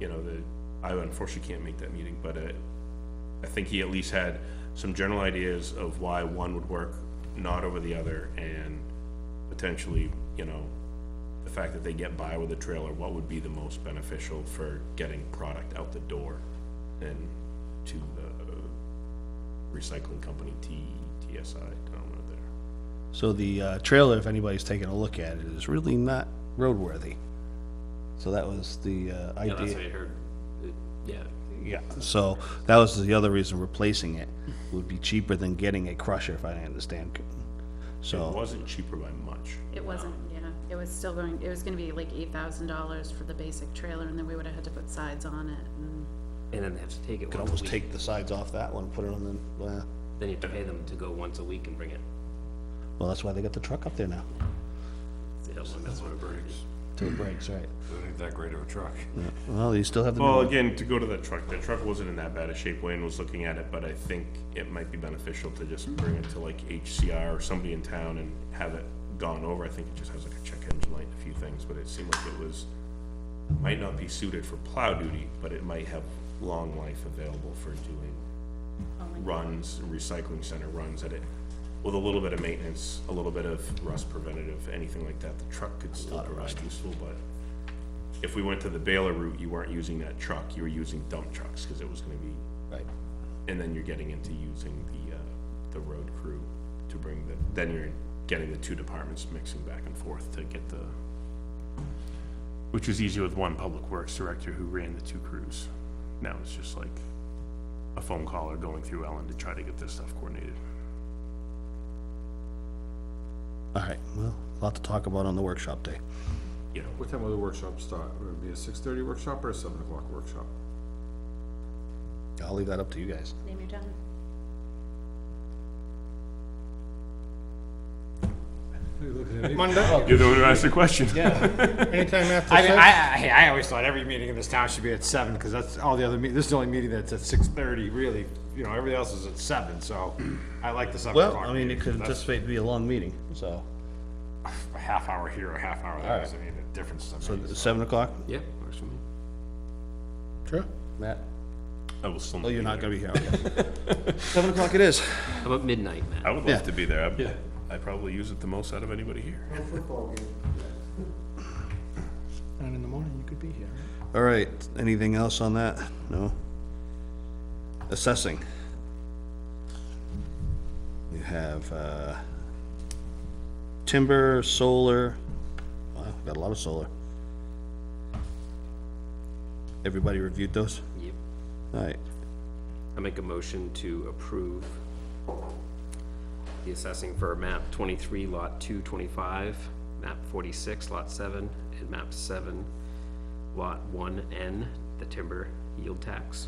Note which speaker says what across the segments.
Speaker 1: you know, the, I unfortunately can't make that meeting, but uh, I think he at least had some general ideas of why one would work not over the other and potentially, you know, the fact that they get by with a trailer, what would be the most beneficial for getting product out the door and to the recycling company T, TSI, I don't know there.
Speaker 2: So the uh, trailer, if anybody's taking a look at it, is really not roadworthy. So that was the uh,
Speaker 3: Yeah, that's what
Speaker 2: idea.
Speaker 3: I heard. It- Yeah,
Speaker 2: Yeah, so that was the other reason replacing it would be cheaper than getting a crusher, if I understand. c-
Speaker 1: It
Speaker 2: So,
Speaker 1: wasn't cheaper by much.
Speaker 4: It wasn't, yeah, it was still going, it was gonna be like eight thousand dollars for the basic trailer, and then we would've had to put sides on it, and,
Speaker 3: and then they have to take it
Speaker 2: could
Speaker 3: once a
Speaker 2: almost
Speaker 3: week.
Speaker 2: take the sides off that one, put it on the, uh, well,
Speaker 3: Then you have to pay them to go once a week and bring it.
Speaker 2: well, that's why they got the truck up there now,
Speaker 3: That's what it breaks.
Speaker 2: till it breaks, right?
Speaker 5: It ain't that great of a truck.
Speaker 2: Well, you still have the new
Speaker 1: Well,
Speaker 2: one.
Speaker 1: again, to go to the truck, the truck wasn't in that bad a shape, Wayne was looking at it, but I think it might be beneficial to just bring it to like HCR or somebody in town and have it gone over, I think it just has like a check engine light and a few things, but it seemed like it was, might not be suited for plow duty, but it might have long life available for doing runs, recycling center runs at it, with a little bit of maintenance, a little bit of rust preventative, anything like that, the truck could still provide useful, but if we went to the baler route, you weren't using that truck, you were using dump trucks, cause it was gonna be,
Speaker 2: Right.
Speaker 1: and then you're getting into using the, uh, the road crew to bring the, then you're getting the two departments mixing back and forth to get the, which was easier with one public works director who ran the two crews. Now it's just like a phone call or going through Ellen to try to get this stuff coordinated.
Speaker 2: All right, well, a lot to talk about on the workshop day.
Speaker 1: You know,
Speaker 5: What time will the workshop start? Would it be a six thirty workshop or a seven o'clock workshop?
Speaker 2: I'll leave that up to you guys.
Speaker 4: name your time.
Speaker 1: you're the one who asked the question.
Speaker 6: Anytime after
Speaker 7: I mean,
Speaker 6: six,
Speaker 7: I, I, I always thought every meeting in this town should be at seven, because that's all the other, meet- this is the only meeting that's at six thirty, really. You know, everything else is at seven, so I like the seven
Speaker 2: Well,
Speaker 7: o'clock.
Speaker 2: I mean, it could
Speaker 7: That's
Speaker 2: anticipate to be a long meeting, so,
Speaker 7: A half hour here, a half hour there, doesn't mean a difference to
Speaker 2: so
Speaker 7: me.
Speaker 2: seven o'clock,
Speaker 3: Yeah, works for me.
Speaker 6: sure.
Speaker 2: Matt?
Speaker 1: I will still.
Speaker 2: Oh, you're not
Speaker 1: be
Speaker 2: gonna be here. okay. Seven o'clock it is.
Speaker 3: How about midnight,
Speaker 1: there. I
Speaker 3: Matt?
Speaker 1: would
Speaker 2: Yeah.
Speaker 1: love to be there. I'd, I'd probably use it the most out of anybody here.
Speaker 6: And in the morning, you could be here.
Speaker 2: All right, anything else on that? No? Assessing. You have, uh, timber, solar, wow, got a lot of solar. Everybody reviewed those?
Speaker 3: Yep.
Speaker 2: All right,
Speaker 3: I make a motion to approve the assessing for map twenty-three, lot two twenty-five, map forty-six, lot seven, and map seven, lot one N, the timber yield tax.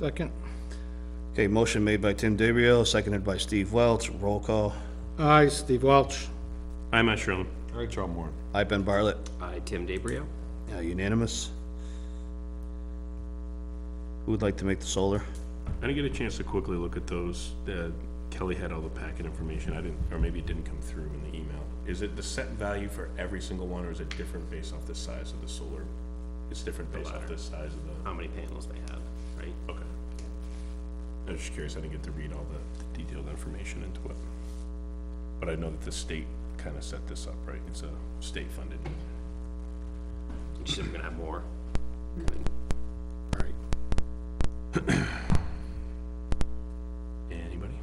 Speaker 6: Second,
Speaker 2: okay, motion made by Tim DeBrio, seconded by Steve Welch, roll call.
Speaker 6: aye, Steve Welch.
Speaker 1: I'm not sure.
Speaker 5: All right, John Warren.
Speaker 2: I, Ben Bartlett,
Speaker 3: I, Tim DeBrio.
Speaker 2: uh, unanimous. Who would like to make the solar?
Speaker 1: I didn't get a chance to quickly look at those. Uh, Kelly had all the packet information. I didn't, or maybe it didn't come through in the email. Is it the set value for every single one, or is it different based off the size of the solar? It's different based off the size of the,
Speaker 3: how many panels they have, right?
Speaker 1: okay. I was just curious. I didn't get to read all the detailed information into it. But I know that the state kind of set this up, right? It's a state-funded.
Speaker 3: She said we're gonna have more.
Speaker 2: All right,
Speaker 1: Anybody?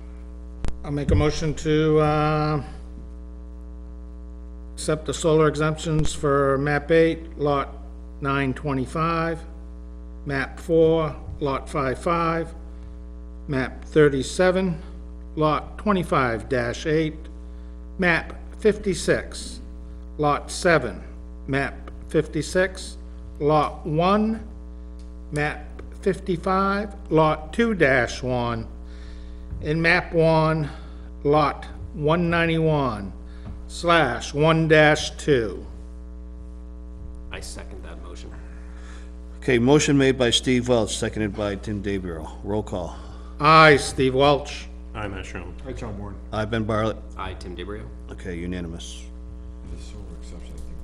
Speaker 6: I'll make a motion to, uh, accept the solar exemptions for map eight, lot nine twenty-five, map four, lot five-five, map thirty-seven, lot twenty-five dash eight, map fifty-six, lot seven, map fifty-six, lot one, map fifty-five, lot two dash one, in map one, lot one ninety-one, slash, one dash two.
Speaker 3: I second that motion.
Speaker 2: Okay, motion made by Steve Welch, seconded by Tim DeBrio. Roll call.
Speaker 6: I, Steve Welch.
Speaker 1: I'm not sure.
Speaker 5: All right, John Warren.
Speaker 2: I, Ben Bartlett.
Speaker 3: I, Tim DeBrio.
Speaker 2: Okay, unanimous.
Speaker 5: The solar exception, I think